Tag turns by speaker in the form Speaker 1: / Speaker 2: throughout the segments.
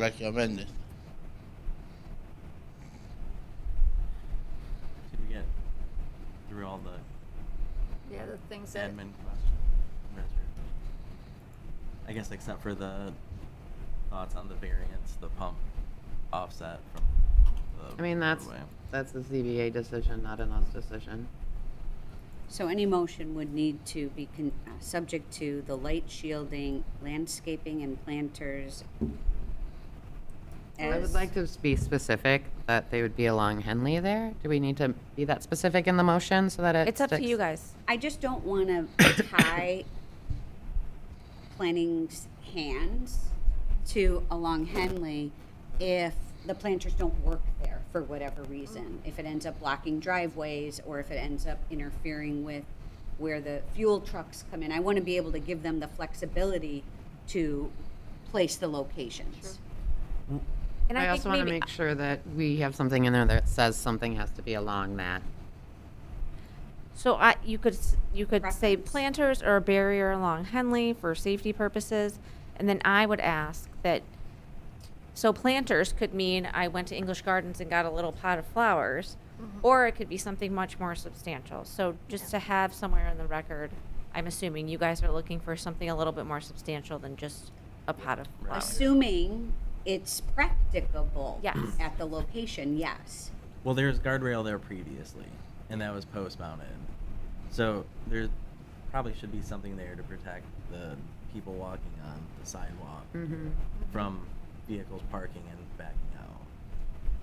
Speaker 1: like you amended.
Speaker 2: Did we get through all the
Speaker 3: Yeah, the things that.
Speaker 2: admin questions? I guess except for the thoughts on the variance, the pump offset from the.
Speaker 4: I mean, that's,
Speaker 2: roadway.
Speaker 4: that's the ZBA decision, not an us decision.
Speaker 5: So any motion would need to be con- uh, subject to the light shielding, landscaping and planters.
Speaker 4: I would
Speaker 5: as-
Speaker 4: like to be specific that they would be along Henley there. Do we need to be that specific in the motion so that it
Speaker 6: It's up to you
Speaker 4: sticks?
Speaker 6: guys.
Speaker 5: I just don't want to tie planning's hands to along Henley if the planters don't work there for whatever reason. If it ends up blocking driveways or if it ends up interfering with where the fuel trucks come in. I want to be able to give them the flexibility to place the locations.
Speaker 6: And
Speaker 4: I
Speaker 6: I
Speaker 4: also
Speaker 6: think
Speaker 4: want to
Speaker 6: maybe-
Speaker 4: make sure that we have something in there that says something has to be along that.
Speaker 6: So I, you could, s- you could say
Speaker 5: Preference.
Speaker 6: planters or a barrier along Henley for safety purposes. And then I would ask that, so planters could mean I went to English Gardens and got a little pot of flowers.
Speaker 4: Mm-hmm.
Speaker 6: Or it could be something much more substantial. So just to have somewhere in the record, I'm assuming you guys are looking for something a little bit more substantial than just a pot of flowers.
Speaker 5: Assuming it's practicable
Speaker 6: Yes.
Speaker 5: at the location, yes.
Speaker 2: Well, there's guardrail there previously, and that was post mounted. So there probably should be something there to protect the people walking on the sidewalk
Speaker 4: Mm-hmm.
Speaker 2: from vehicles parking and backing out.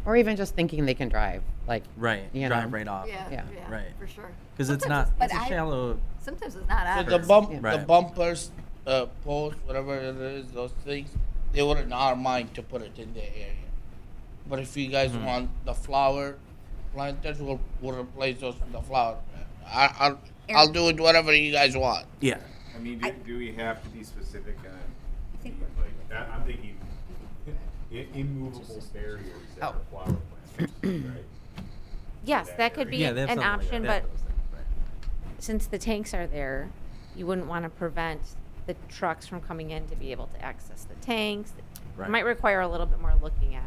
Speaker 4: Or even just thinking they can drive, like.
Speaker 2: Right,
Speaker 4: You
Speaker 2: drive
Speaker 4: know.
Speaker 2: right off.
Speaker 3: Yeah,
Speaker 4: Yeah.
Speaker 3: yeah,
Speaker 2: Right.
Speaker 3: for sure.
Speaker 2: Because it's
Speaker 3: Sometimes
Speaker 2: not,
Speaker 3: it's-
Speaker 2: it's
Speaker 5: But
Speaker 2: a
Speaker 5: I-
Speaker 2: shallow,
Speaker 3: Sometimes it's not
Speaker 1: So the
Speaker 3: ours.
Speaker 1: bump,
Speaker 4: Yeah.
Speaker 1: the
Speaker 2: Right.
Speaker 1: bumpers, uh, posts, whatever it is, those things, they were in our mind to put it in the area. But if you guys want the flower planters, we'll, we'll replace those with the flower. I, I'll, I'll do it whatever you guys want.
Speaker 2: yeah.
Speaker 7: I mean, do, do we have to be specific on,
Speaker 5: think
Speaker 7: like, that, I'm thinking i- immovable barriers that are flower planters, right?
Speaker 6: Yes, that could be
Speaker 2: Yeah, they have
Speaker 6: an
Speaker 2: something like
Speaker 6: option,
Speaker 2: that,
Speaker 6: but
Speaker 2: those things, right.
Speaker 6: since the tanks are there, you wouldn't want to prevent the trucks from coming in to be able to access the tanks. It
Speaker 2: Right.
Speaker 6: Might require a little bit more looking at.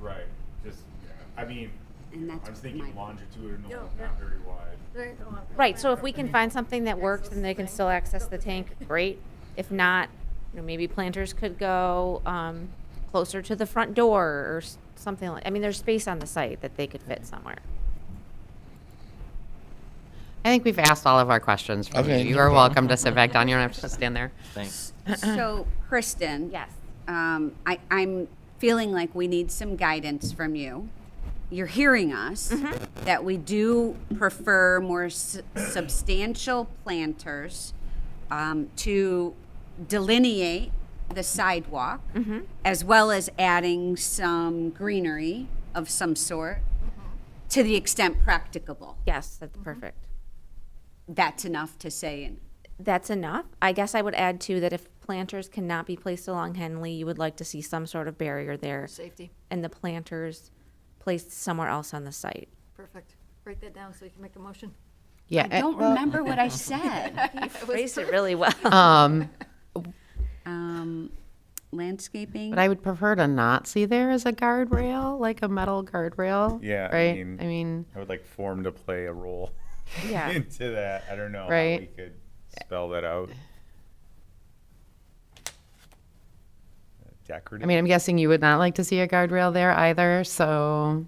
Speaker 7: Right, just, yeah, I mean,
Speaker 5: And
Speaker 7: you know,
Speaker 5: that's
Speaker 7: I'm just
Speaker 5: my-
Speaker 7: thinking longitudinal,
Speaker 3: No, yeah.
Speaker 7: not very wide.
Speaker 3: There ain't no one-
Speaker 6: Right, so if we can find something that works
Speaker 3: Access
Speaker 6: and they
Speaker 3: the
Speaker 6: can
Speaker 3: tank.
Speaker 6: still access
Speaker 3: Build
Speaker 6: the
Speaker 3: the
Speaker 6: tank,
Speaker 3: tank.
Speaker 6: great. If not, you know, maybe planters could go, um, closer to the front door or s- something like, I mean, there's space on the site that they could fit somewhere.
Speaker 4: I think we've asked all of our questions. for you.
Speaker 1: Okay,
Speaker 4: You
Speaker 1: no
Speaker 4: are
Speaker 1: problem.
Speaker 4: welcome to sit back down. You don't have to just stand there.
Speaker 2: Thanks.
Speaker 5: So, Kristen.
Speaker 6: Yes.
Speaker 5: Um, I, I'm feeling like we need some guidance from you. You're hearing us that we do prefer more s- substantial planters um, to delineate the sidewalk, as well as adding some greenery of some sort to the extent practicable.
Speaker 6: Yes, that's perfect.
Speaker 5: That's enough to say. And
Speaker 6: that's enough. I guess I would add too that if planters cannot be placed along Henley, you would like to see some sort of barrier there
Speaker 3: Safety,
Speaker 6: and the planters placed somewhere else on the site.
Speaker 3: perfect. Write that down so you can make a motion.
Speaker 4: Yeah. uh,
Speaker 5: I don't
Speaker 4: Eh, well,
Speaker 5: remember what I said.
Speaker 6: You phrased it really well.
Speaker 4: Um,
Speaker 5: um, landscaping.
Speaker 4: but I would prefer to not see there as a guardrail, like a metal guardrail.
Speaker 7: Yeah, I
Speaker 4: Right?
Speaker 7: mean-
Speaker 4: I mean,
Speaker 7: I would like form to play a role
Speaker 6: Yeah.
Speaker 7: into that, I don't know
Speaker 4: we Right.
Speaker 7: could spell that out.
Speaker 4: I
Speaker 7: Decorative,
Speaker 4: mean, I'm guessing you would not like to see a guardrail there either, so.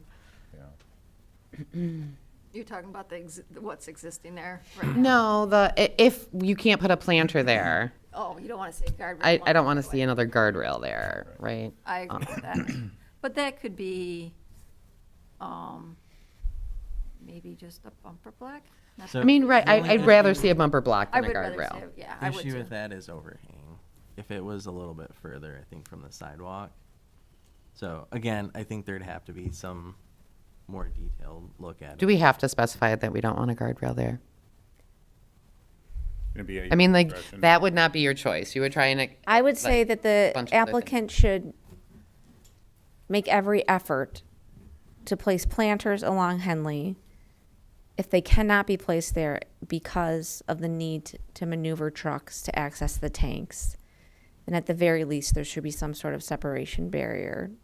Speaker 3: You're talking about the, ex- what's existing there, right?
Speaker 4: No, the, i- if you can't put a planter there,
Speaker 3: Oh, you don't want to say guardrail.
Speaker 4: I, I
Speaker 3: along
Speaker 4: don't want to
Speaker 3: the
Speaker 4: see
Speaker 3: way.
Speaker 4: another guardrail there, right?
Speaker 3: I agree with that. But that could be, um, maybe just a bumper block? Not-
Speaker 2: So
Speaker 4: I mean, right,
Speaker 2: the
Speaker 4: I,
Speaker 2: only
Speaker 4: I'd rather
Speaker 2: issue-
Speaker 4: see a bumper block
Speaker 3: I
Speaker 4: than a
Speaker 3: would rather say,
Speaker 4: guardrail.
Speaker 3: yeah,
Speaker 2: The
Speaker 3: I would
Speaker 2: issue
Speaker 3: too.
Speaker 2: with that is overhang. If it was a little bit further, I think, from the sidewalk. So again, I think there'd have to be some more detailed look at it.
Speaker 4: Do we have to specify that we don't want a guardrail there?
Speaker 7: gonna be
Speaker 4: I mean, like, that would not be your choice. You would try and.
Speaker 6: I would say that the
Speaker 4: bunch of other
Speaker 6: applicant should make every effort to place planters along Henley if they cannot be placed there because of the need to maneuver trucks to access the tanks. And at the very least, there should be some sort of separation barrier